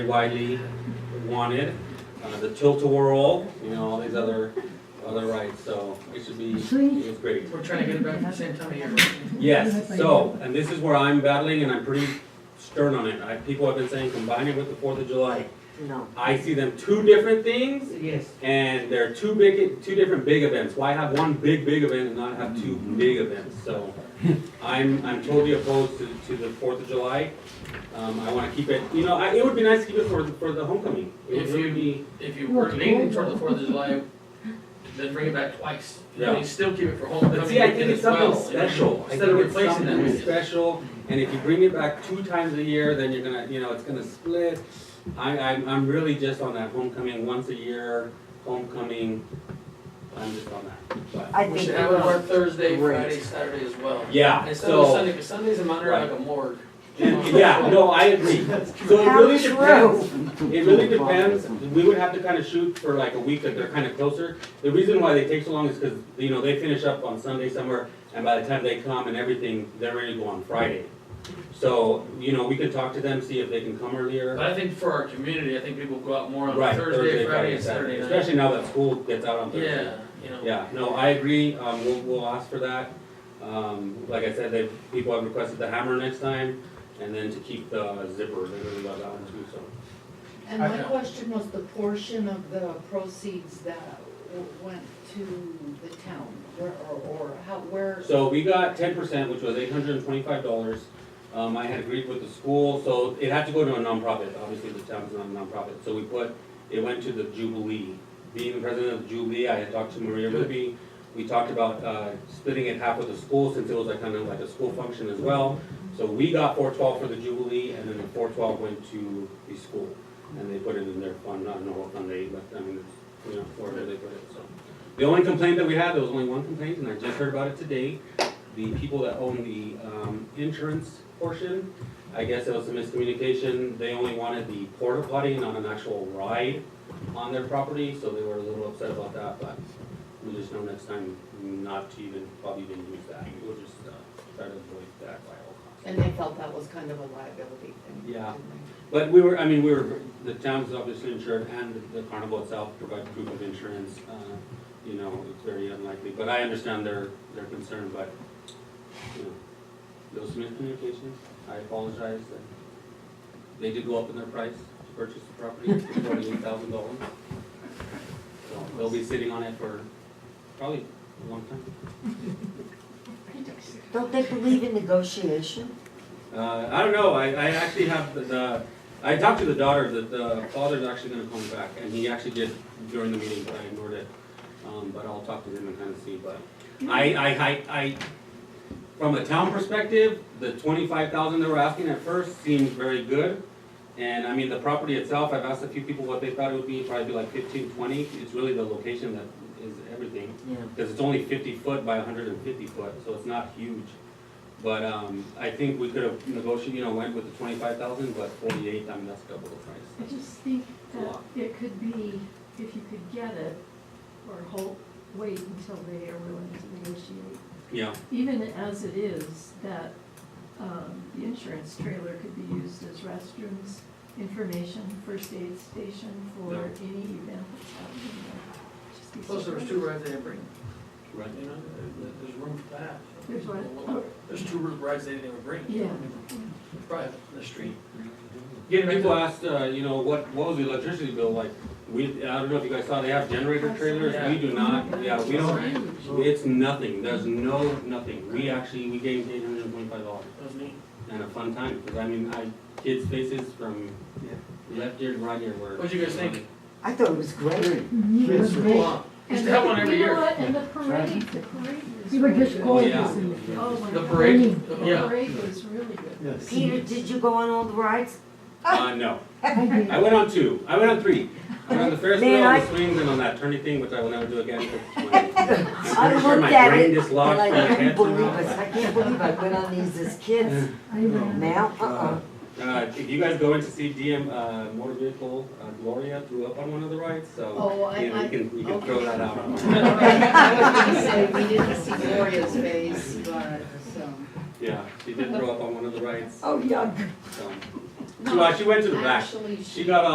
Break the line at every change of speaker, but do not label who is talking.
widely wanted, uh, the tilt-a-whirl, you know, all these other, other rights, so it should be, it was great.
We're trying to get it back at the same time of year.
Yes, so, and this is where I'm battling and I'm pretty stern on it, I, people have been saying combine it with the Fourth of July.
No.
I see them two different things
Yes.
and they're two big, two different big events, why have one big, big event and not have two big events, so. I'm, I'm totally opposed to, to the Fourth of July, um, I wanna keep it, you know, I, it would be nice to keep it for, for the homecoming. It would
If you-
really be-
If you were leaning toward the Fourth of July, then bring it back twice. You know,
Yeah.
you still keep it for
But
homecoming
see, I
weekend
think it's
as well.
something
you know,
special, I
Instead of
think it's
replacing
something
that.
special, and if you bring it back two times a year, then you're gonna, you know, it's gonna split. I, I'm, I'm really just on that homecoming, once a year, homecoming, I'm just on that, but,
I
We
think
should
it
have it
will.
work Thursday,
Great.
Friday, Saturday as well.
yeah,
Instead of
so.
Sunday, because Sunday's in Monterey like a morgue.
and- Yeah, no, I agree, so it
How
really
true.
depends, it really depends, we would have to kinda shoot for like a week that they're kinda closer. The reason why they take so long is cause, you know, they finish up on Sunday somewhere, and by the time they come and everything, they're ready to go on Friday. So, you know, we could talk to them, see if they can come earlier.
But I think for our community, I think people go out more on
Right,
Thursday, Friday, and Saturday night.
Especially now that school gets out on Thursday.
Yeah, you know.
Yeah, no, I agree, um, we'll, we'll ask for that. Um, like I said, they, people have requested the hammer next time, and then to keep the zipper, they really love that one too, so.
And my
Okay.
question was the portion of the proceeds that w- went to the town, where, or, or how, where,
So we got ten percent, which was eight hundred and twenty-five dollars. Um, I had agreed with the school, so it had to go to a nonprofit, obviously the town's not a nonprofit, so we put, it went to the Jubilee. Being the president of the Jubilee, I had talked to Maria
Good.
Ruby, we talked about, uh, splitting it half with the school, since it was like kind of like a school function as well. So we got four twelve for the Jubilee, and then the four twelve went to the school, and they put it in their fund, I don't know what fund they, but I mean, it's, you know, wherever they put it, so. The only complaint that we had, there was only one complaint, and I just heard about it today, the people that own the, um, insurance portion, I guess it was a miscommunication, they only wanted the porta potty, not an actual ride on their property, so they were a little upset about that, but we just know next time not to even, probably even use that, we'll just, uh, try to avoid that by all costs.
and they felt that was kind of a liability thing.
Yeah.
didn't they?
But we were, I mean, we were, the town's obviously insured and the carnival itself provide proof of insurance. uh, You know, it's very unlikely, but I understand their, their concern, but, you know, those miscommunications, I apologize. that They did go up in their price to purchase the property for forty-eight thousand dollars. So they'll be sitting on it for probably a long time.
Don't they believe in negotiation?
Uh, I don't know. I, I actually have the, the, I talked to the daughter, the, the father's actually gonna come back, and he actually did during the meeting, but I ignored it. Um, but I'll talk to him and kind of see, but I, I, I, I, from a town perspective, the twenty-five thousand they were asking at first seemed very good. And I mean, the property itself, I've asked a few people what they thought it would be, probably be like fifteen, twenty. It's really the location that is everything
Yeah.
because it's only fifty foot by hundred and fifty foot, so it's not huge. But, um, I think we could have negotiated, you know, went with the twenty-five thousand, but forty-eight, I mean, that's double the
I
price.
just think that
Lot.
it could be, if you could get it, or hold, wait until they are willing to negotiate.
Yeah,
Even as it is, that, um, the insurance trailer could be used as restrooms, information, first aid station for
Yeah.
any event that's happening there. Just be
Plus, there was
surprised.
two rides they didn't bring,
right.
you know, there- there's room for that.
There's what?
There's two rides they didn't even bring.
Yeah.
Private, in the street.
Yeah, people asked, uh, you know, what, what was the electricity bill like? We, I don't know if you guys saw, they have generator trailers, we do not, yeah, we don't, it's nothing, there's no, nothing. We actually, we gave eight hundred and twenty-five dollars
That was neat.
and a fun time, because I mean, I, kids' faces from left ear to right ear were.
What'd you guys think?
I thought it was great.
It was
Come
great.
on.
Oh, And
We used to have one
the-
every
You know
year.
what, and the parade, the parade was.
You were
really
just
good.
Oh,
going
yeah.
to see it.
Oh, my God.
The parade,
The
yeah.
parade was really good.
Yes.
Peter, did you go on all the rides?
Uh, no.
I did.
I went on two. I went on three. I went on the Ferris
Man,
wheel, the
I-
swings, and on that turny thing, which I will never do again. 'cause my-
I
I'm pretty sure
looked
my
at
brain
it,
dislodged
And
my
I
head
couldn't believe
somehow,
us. I can't believe I went on these as kids.
I ran.
Now, uh-uh.
but, Uh, if you guys go in to see DM, uh, motor vehicle, uh, Gloria threw up on one of the rides, so,
Oh, I,
you know, you
I,
can, you can
okay.
throw that out on.
I was gonna say, we didn't see Gloria's face, but, um, so.
Yeah, she did throw up on one of the rides,
Oh, yuck.
so.
She, well, she went to the back.
Actually, she.
She got